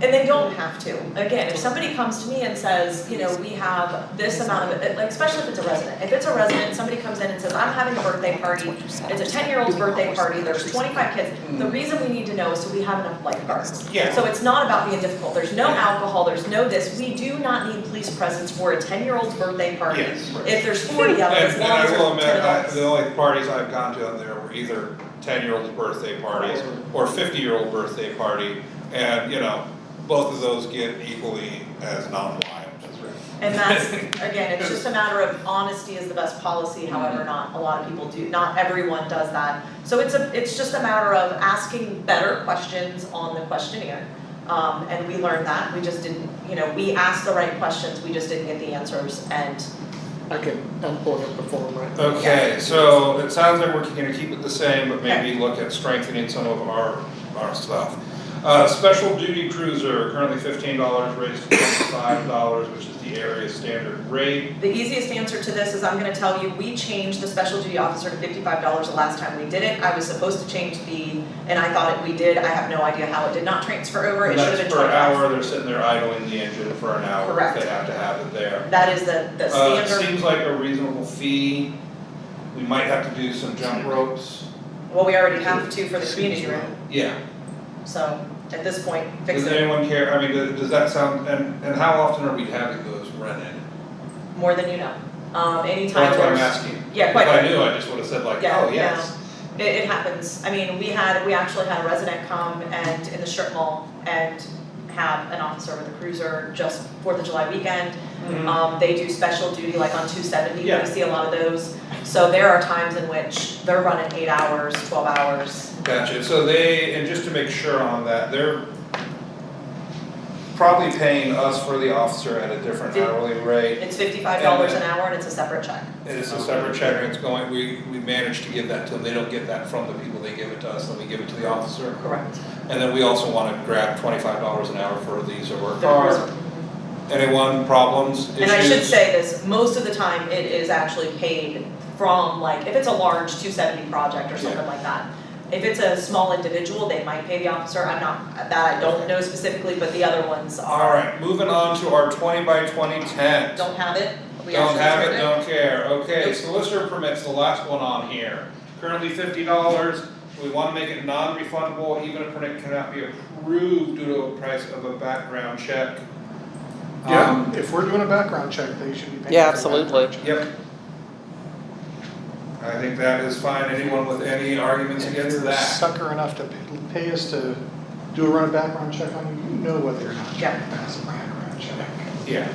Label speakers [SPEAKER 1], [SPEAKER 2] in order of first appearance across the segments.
[SPEAKER 1] And they don't
[SPEAKER 2] have to.
[SPEAKER 1] again, if somebody comes to me and says, you know, we have this amount of, like, especially if it's a resident, if it's a resident, somebody comes in and says, I'm having a birthday party, it's a ten-year-old's birthday party, there's twenty-five kids, the reason we need to know is so we have enough lifeguards.
[SPEAKER 3] Yeah.
[SPEAKER 1] So it's not about being difficult, there's no alcohol, there's no this, we do not need police presence for a ten-year-old's birthday party.
[SPEAKER 3] Yes.
[SPEAKER 1] If there's forty of
[SPEAKER 4] And,
[SPEAKER 1] them, as
[SPEAKER 4] and
[SPEAKER 1] long as
[SPEAKER 4] I will admit,
[SPEAKER 1] there's ten
[SPEAKER 4] I,
[SPEAKER 1] adults.
[SPEAKER 4] the only parties I've gone to on there were either ten-year-old's birthday parties or fifty-year-old birthday party, and, you know, both of those get equally as non-violent.
[SPEAKER 1] And that's, again, it's just a matter of honesty is the best policy,
[SPEAKER 4] Mm-hmm.
[SPEAKER 1] however, not a lot of people do, not everyone does that. So it's a, it's just a matter of asking better questions on the questionnaire. Um, and we learned that, we just didn't, you know, we asked the right questions, we just didn't get the answers and
[SPEAKER 2] I can, I'm pulling up the form right now.
[SPEAKER 4] Okay, so it sounds like we're gonna keep it the same, but maybe look at strengthening some of our, our stuff. Uh, special duty cruiser, currently fifteen dollars, raised to twenty-five dollars, which is the area standard rate.
[SPEAKER 1] the easiest answer to this is I'm gonna tell you, we changed the special duty officer to fifty-five dollars the last time we did it. I was supposed to change the, and I thought it, we did, I have no idea how it did not transfer over, it
[SPEAKER 4] And
[SPEAKER 1] should have
[SPEAKER 4] that's
[SPEAKER 1] been
[SPEAKER 4] per
[SPEAKER 1] twenty-five.
[SPEAKER 4] hour, they're sitting there idling the engine for an hour,
[SPEAKER 1] Correct.
[SPEAKER 4] they have to have it there.
[SPEAKER 1] That is the, the
[SPEAKER 4] Uh,
[SPEAKER 1] standard.
[SPEAKER 4] it seems like a reasonable fee, we might have to do some jump ropes,
[SPEAKER 1] Well, we already have two for the community room,
[SPEAKER 4] yeah.
[SPEAKER 1] so at this point, fix
[SPEAKER 4] Does
[SPEAKER 1] it
[SPEAKER 4] anyone care, I mean, does does that sound, and, and how often are we having those rented?
[SPEAKER 1] more than you know. Um, anytime
[SPEAKER 4] That's what I'm
[SPEAKER 1] there's-
[SPEAKER 4] asking.
[SPEAKER 1] Yeah, quite.
[SPEAKER 4] If I knew, I just would have said like,
[SPEAKER 1] Yeah,
[SPEAKER 4] oh, yes.
[SPEAKER 1] It, it happens. I mean, we had, we actually had a resident come and in the strip mall and have an officer with a cruiser just Fourth of July weekend. Um, they do special duty like on two seventy,
[SPEAKER 4] Mm-hmm. Yeah.
[SPEAKER 1] we see a lot of those. So there are times in which they're running eight hours, twelve hours.
[SPEAKER 4] Gotcha, so they, and just to make sure on that, they're probably paying us for the officer at a different
[SPEAKER 1] Fif-
[SPEAKER 4] hourly rate.
[SPEAKER 1] It's fifty-five dollars
[SPEAKER 4] And uh,
[SPEAKER 1] an
[SPEAKER 4] then-
[SPEAKER 1] hour and it's a separate check.
[SPEAKER 4] And it's a separate check, and it's going, we, we managed to give that to them, they don't get that from the people, they give it to us, then we give it to the officer.
[SPEAKER 1] Correct.
[SPEAKER 4] And then we also wanna grab twenty-five dollars an hour for these or work
[SPEAKER 1] The
[SPEAKER 4] cars.
[SPEAKER 1] cruiser.
[SPEAKER 4] Anyone, problems, issues?
[SPEAKER 1] And I should say this, most of the time it is actually paid from like, if it's a large two seventy project or something
[SPEAKER 4] Yeah.
[SPEAKER 1] like that. If it's a small individual, they might pay the officer, I'm not, that I don't know specifically, but the other ones are,
[SPEAKER 4] Alright, moving on to our twenty by twenty tent.
[SPEAKER 1] don't have it, we
[SPEAKER 4] Don't
[SPEAKER 1] actually
[SPEAKER 4] have it,
[SPEAKER 1] reserve
[SPEAKER 4] don't care, okay,
[SPEAKER 1] Nope.
[SPEAKER 4] solicitor permits, the last one on here, currently fifty dollars. We wanna make it non-refundable, even if it cannot be approved due to a price of a background check. Um,
[SPEAKER 3] Yeah, if we're doing a background check, they should be paying for that.
[SPEAKER 2] Yeah, absolutely.
[SPEAKER 4] Yep. I think that is fine, anyone with any arguments
[SPEAKER 3] If
[SPEAKER 4] against
[SPEAKER 3] you're
[SPEAKER 4] that?
[SPEAKER 3] sucker enough to pay- pay us to do a run of background check on you, you know whether or not you
[SPEAKER 1] Yeah.
[SPEAKER 3] can pass a background check.
[SPEAKER 4] Yeah.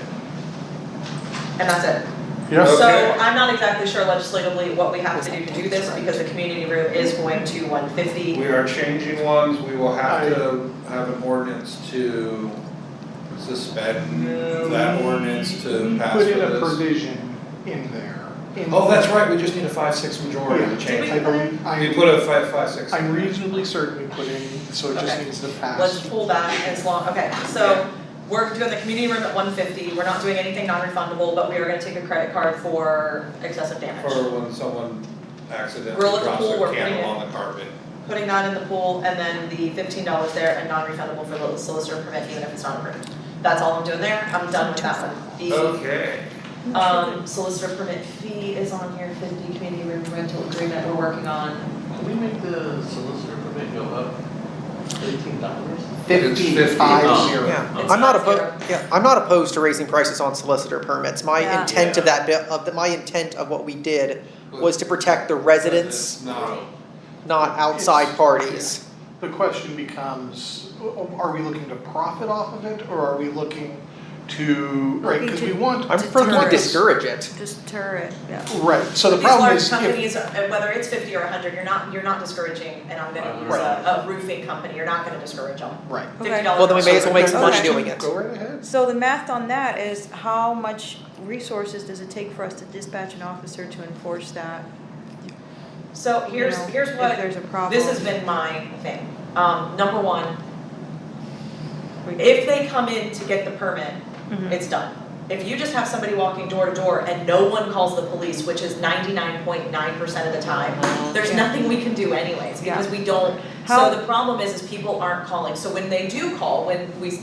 [SPEAKER 1] And that's it.
[SPEAKER 3] Yes,
[SPEAKER 1] So
[SPEAKER 4] Okay.
[SPEAKER 1] I'm not exactly sure legislatively what we have to do to do this, because the community room is going to one fifty.
[SPEAKER 4] We are changing ones, we will have to have an ordinance to suspend that ordinance to pass for
[SPEAKER 3] put
[SPEAKER 4] this.
[SPEAKER 3] in a provision in there. in-
[SPEAKER 4] Oh, that's right, we just need a five, six majority to
[SPEAKER 3] Yeah.
[SPEAKER 4] change.
[SPEAKER 3] I believe,
[SPEAKER 4] We
[SPEAKER 3] I'm,
[SPEAKER 4] put a five, five, six.
[SPEAKER 3] I'm reasonably certain we put in, so it just
[SPEAKER 1] Okay.
[SPEAKER 3] needs to
[SPEAKER 1] Let's
[SPEAKER 3] pass.
[SPEAKER 1] pull back as long, okay, so we're doing the community room at one fifty, we're not doing anything non-refundable, but we are gonna take a credit card for excessive damage.
[SPEAKER 4] For when someone accidentally
[SPEAKER 1] Roll at the
[SPEAKER 4] drops
[SPEAKER 1] pool,
[SPEAKER 4] a
[SPEAKER 1] we're putting
[SPEAKER 4] candle
[SPEAKER 1] it-
[SPEAKER 4] on the carpet.
[SPEAKER 1] Putting that in the pool and then the fifteen dollars there and non-refundable for the solicitor permit, even if it's not approved. That's all I'm doing there, I'm done with that one. The
[SPEAKER 4] Okay.
[SPEAKER 1] um solicitor permit fee is on here, fifty community room rental agreement we're working on.
[SPEAKER 5] Can we make the solicitor permit go up eighteen dollars?
[SPEAKER 4] Oh.
[SPEAKER 3] Fifty-five zero.
[SPEAKER 6] Yeah,
[SPEAKER 1] It's
[SPEAKER 6] I'm not
[SPEAKER 1] not
[SPEAKER 6] opposed, yeah, I'm not opposed to raising prices on solicitor permits. My
[SPEAKER 1] Yeah.
[SPEAKER 6] intent of that, bill- of, the- my intent of what we did was to protect the residents,
[SPEAKER 4] No.
[SPEAKER 6] not outside
[SPEAKER 3] It's-
[SPEAKER 6] parties.
[SPEAKER 3] The question becomes, o- o- are we looking to profit off of it, or are we looking to, right, because we want.
[SPEAKER 6] I'm for
[SPEAKER 3] we want
[SPEAKER 6] to
[SPEAKER 3] this-
[SPEAKER 6] discourage it.
[SPEAKER 7] Deter it, yeah.
[SPEAKER 3] Right, so the problem is,
[SPEAKER 1] These large
[SPEAKER 3] if,
[SPEAKER 1] companies, uh, whether it's fifty or hundred, you're not, you're not discouraging, and I'm gonna use a a roofing company, you're not gonna discourage them.
[SPEAKER 3] right.
[SPEAKER 1] Fifty
[SPEAKER 7] Okay.
[SPEAKER 1] dollars.
[SPEAKER 6] Well, then we may as well make some money
[SPEAKER 7] Okay.
[SPEAKER 6] doing it.
[SPEAKER 3] Go right ahead.
[SPEAKER 7] So the math on that is how much resources does it take for us to dispatch an officer to enforce that?
[SPEAKER 1] So
[SPEAKER 7] you
[SPEAKER 1] here's,
[SPEAKER 7] know,
[SPEAKER 1] here's
[SPEAKER 7] If
[SPEAKER 1] what,
[SPEAKER 7] there's a problem.
[SPEAKER 1] this has been my thing. Um, number one, if they come in to get the permit,
[SPEAKER 7] Mhm.
[SPEAKER 1] it's done. If you just have somebody walking door to door and no one calls the police, which is ninety-nine point nine percent of the time, there's
[SPEAKER 7] Yeah.
[SPEAKER 1] nothing we can do anyways, because we don't.
[SPEAKER 7] How-
[SPEAKER 1] So the problem is, is people aren't calling, so when they do call, when we